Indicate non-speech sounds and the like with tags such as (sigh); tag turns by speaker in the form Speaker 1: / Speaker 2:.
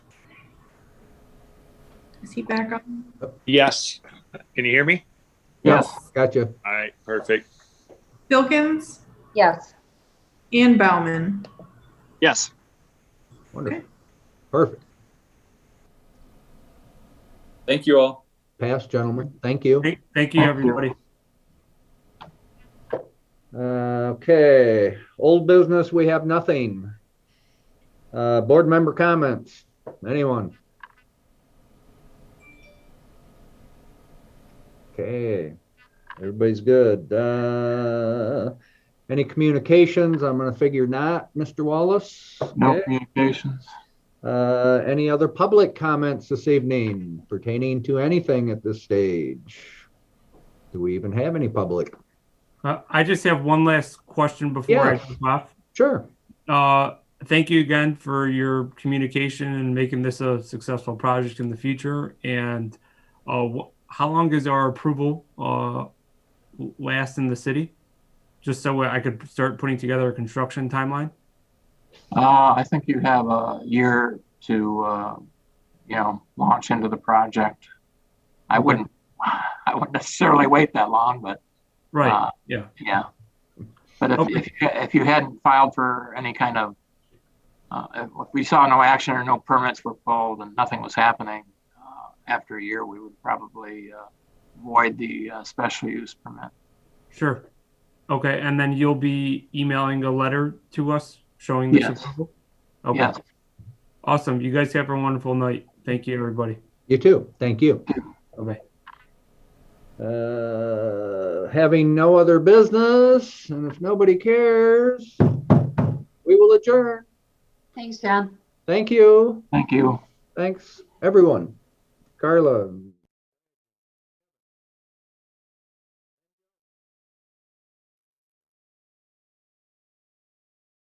Speaker 1: Is he back on?
Speaker 2: Yes. Can you hear me?
Speaker 3: Yes.
Speaker 4: Gotcha.
Speaker 2: All right, perfect.
Speaker 1: Filkins
Speaker 3: Yes.
Speaker 1: and Bauman.
Speaker 2: Yes.
Speaker 4: Wonderful.
Speaker 1: Okay.
Speaker 4: Perfect.
Speaker 5: Thank you all.
Speaker 4: Pass, gentlemen. Thank you.
Speaker 6: Thank, thank you, everybody.
Speaker 4: Uh, Okay, old business, we have nothing. Uh, board member comments, anyone? Okay, everybody's good. Uh, any communications? I'm gonna figure not, Mr. Wallace.
Speaker 6: No
Speaker 4: Okay.
Speaker 6: communications.
Speaker 4: Uh, any other public comments this evening pertaining to anything at this stage? Do we even have any public?
Speaker 6: Uh, I just have one last question before I
Speaker 4: Yes.
Speaker 6: jump off.
Speaker 4: Sure.
Speaker 6: Uh, thank you again for your communication and making this a successful project in the future. And uh, wh- how long is our approval uh, l- last in the city? Just so I could start putting together a construction timeline.
Speaker 7: Uh, I think you have a year to, uh, you know, launch into the project. I wouldn't, (sighs) I wouldn't necessarily wait that long, but
Speaker 6: Right.
Speaker 7: Uh,
Speaker 6: yeah.
Speaker 7: Yeah. But if,
Speaker 6: Okay.
Speaker 7: if, if you hadn't filed for any kind of, uh, if we saw no action or no permits were pulled and nothing was happening, uh, after a year, we would probably, uh, void the, uh, special use permit.
Speaker 6: Sure. Okay. And then you'll be emailing a letter to us showing this
Speaker 7: Yes.
Speaker 6: approval? Okay.
Speaker 7: Yes.
Speaker 6: Awesome. You guys have a wonderful night. Thank you, everybody.
Speaker 4: You too. Thank you.
Speaker 6: Bye-bye.
Speaker 4: Uh, having no other business, and if nobody cares, we will adjourn.
Speaker 3: Thanks, John.
Speaker 4: Thank you.
Speaker 7: Thank you.
Speaker 4: Thanks, everyone. Carla.